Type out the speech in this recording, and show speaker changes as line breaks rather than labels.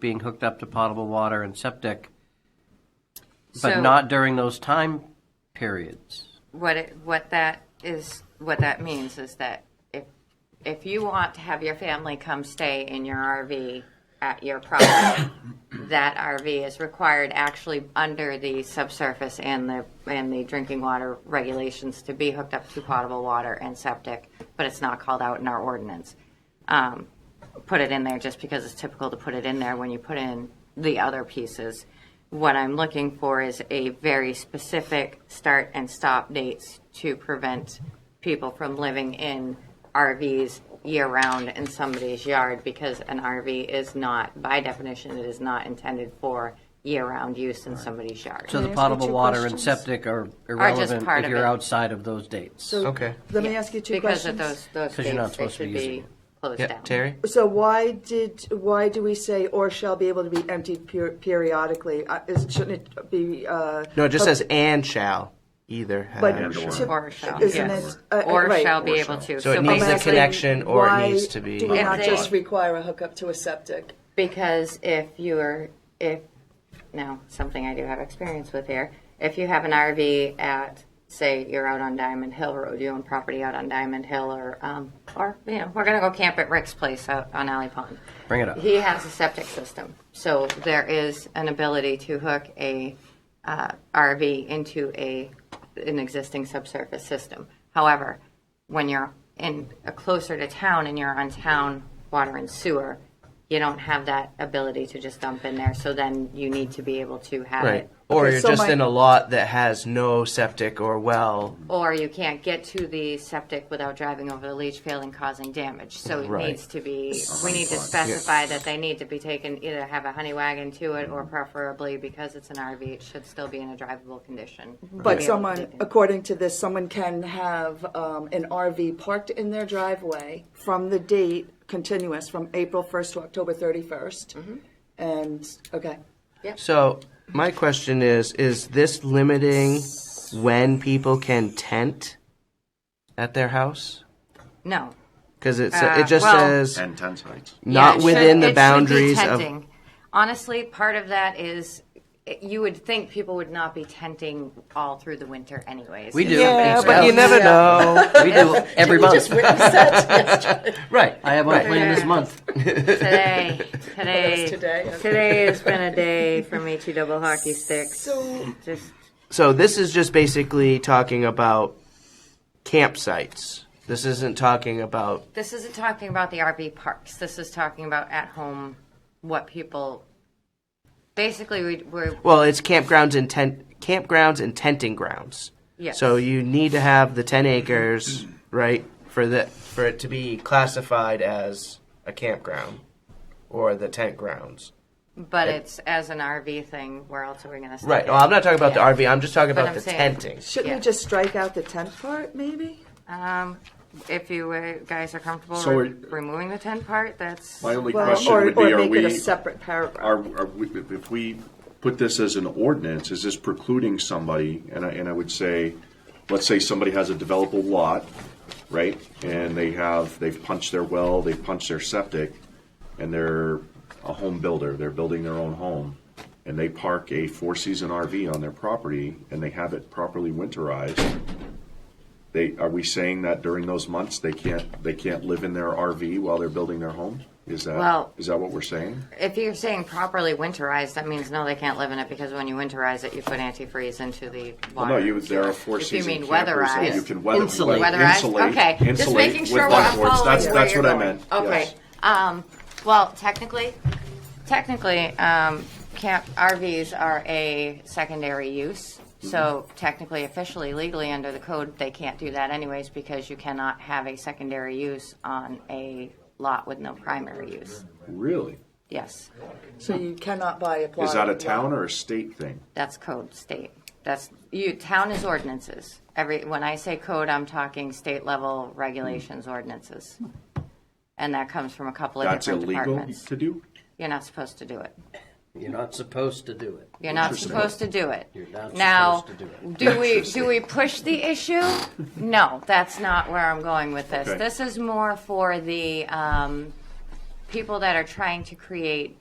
being hooked up to potable water and septic, but
So-
not during those time periods.
What it, what that is, what that means is that if if you want to have your family come stay in your RV at your property, that RV is required actually under the subsurface and the and the drinking water regulations to be hooked up to potable water and septic, but it's not called out in our ordinance. Um, put it in there just because it's typical to put it in there when you put in the other pieces. What I'm looking for is a very specific start and stop dates to prevent people from living in RVs year round in somebody's yard because an RV is not, by definition, it is not intended for year round use in somebody's yard.
So the
I ask you
potable
two
water and
questions?
septic are
just
irrelevant
part
if
of
you're
it.
outside of those dates.
So
Okay.
Let me ask you two
because of
questions.
those, those
'Cause you're not
dates, they
supposed to be
should
using
be
it.
closed
Yeah,
down.
Terry?
So why did why do we say or shall be able to be emptied per- periodically? Uh, is, shouldn't it be? Uh,
No, it just
pub-
says and shall either have.
But
And or.
to-
Or Oh. shall,
isn't
yes.
it? Uh,
Or
right.
shall be
Or
able
shall.
to.
So it needs the
basically,
connection or it
why
needs to be-
Do we
If
not
they-
just require a hookup to a septic?
Because if you're, if, now, something I do have experience with here, if you have an RV at, say, you're out on Diamond Hill Road, you own property out on Diamond Hill, or, um, or, you know, we're gonna go camp at Rick's place out on Alley Pond.
Bring it up.
He has a septic system, so there is an ability to hook a, uh, RV into a, an existing subsurface system. However, when you're in, uh, closer to town and you're on town water and sewer, you don't have that ability to just dump in there, so then you need to be able to have
Right.
it.
Or
Okay,
you're
so
just
my-
in a lot that has no septic or well.
Or you can't get to the septic without driving over the leach field and causing damage, so it
Right.
needs to be, we need to specify that they need to be taken, either have a honey wagon to it, or preferably, because it's an RV, it should still be in a drivable condition. to be able
But
to
someone,
take it.
according to this, someone can have um, an RV parked in their driveway from the date continuous from April 1st to October 31st.
Mm-hmm.
And, okay.
So my question is: Is this limiting when people can tent at their house?
No.
Because it
Uh,
it just
well-
says
And ten sites.
not
Yeah, it should-
within
it
the
should be
boundaries of.
tenting. Honestly, part of that is it- you would think people would not be tenting all through the winter, anyways.
We
If
do.
somebody's
Yeah, but you
really-
never
Yeah.
know.
We do every month.
right.
I have one plan this
Yeah.
month.
today, today,
today,
today,
okay.
has been a day for Michi double hockey sticks.
So-
just
So this is just basically talking about campsites. This isn't talking about
this isn't talking about the RV parks. This is talking about at home, what people. Basically, we, we're
Well, it's campgrounds and tent campgrounds and tenting grounds.
Yes.
So you need to have the ten acres, right, for the for it to be classified as a campground or the tent grounds.
but it's as an RV thing. Where else are we going to?
Right. Well, I'm not talking about the RV. I'm just talking
But
about
I'm
the
saying-
tenting.
Shouldn't we
Yeah.
just strike out the tent part, maybe?
Um, if you uh, guys are comfortable
So
re-
we're-
removing the tent part, that's
My only
Well,
question
or,
would
or
be, are
make it a
we,
separate paragraph.
are, are we, if- if we put this as an ordinance, is this precluding somebody? And I, and I would say, let's say somebody has a developable lot, right? And they have, they've punched their well, they've punched their septic, and they're a home builder, they're building their own home. And they park a four-season RV on their property and they have it properly winterized. They, are we saying that during those months, they can't, they can't live in their RV while they're building their home? Is that,
Well-
is that what we're saying?
if you're saying properly winterized, that means no, they can't live in it because when you winterize it, you put antifreeze into the water.
Well, Oh, no, you, there are four
If you
season
mean
campers that
weatherized.
You can weather,
Insulate.
weather-
Weatherized?
insulate,
okay. Just
insulate
making
with
sure we're all
wetboards.
following
That's,
where
that's
you're
what I
going.
meant.
Okay.
Yes.
Um, well, technically, technically, um, camp RVs are a secondary use.
Mm-hmm.
So technically, officially, legally, under the code, they can't do that anyways because you cannot have a secondary use on a lot with no primary use.
Really?
Yes,
So you cannot buy a plot.
Is that a town or a state thing?
that's code state. That's you. Town is ordinances. Every when I say code, I'm talking state level regulations, ordinances, and that comes from a couple of
That's
different
illegal
departments.
to do?
You're not supposed to do it.
You're not supposed to do it.
You're not supposed to do it.
You're not
Now,
supposed to do it.
do we, do we push the issue? No, that's not where I'm going with this.
Okay.
This is more for the um, people that are trying to create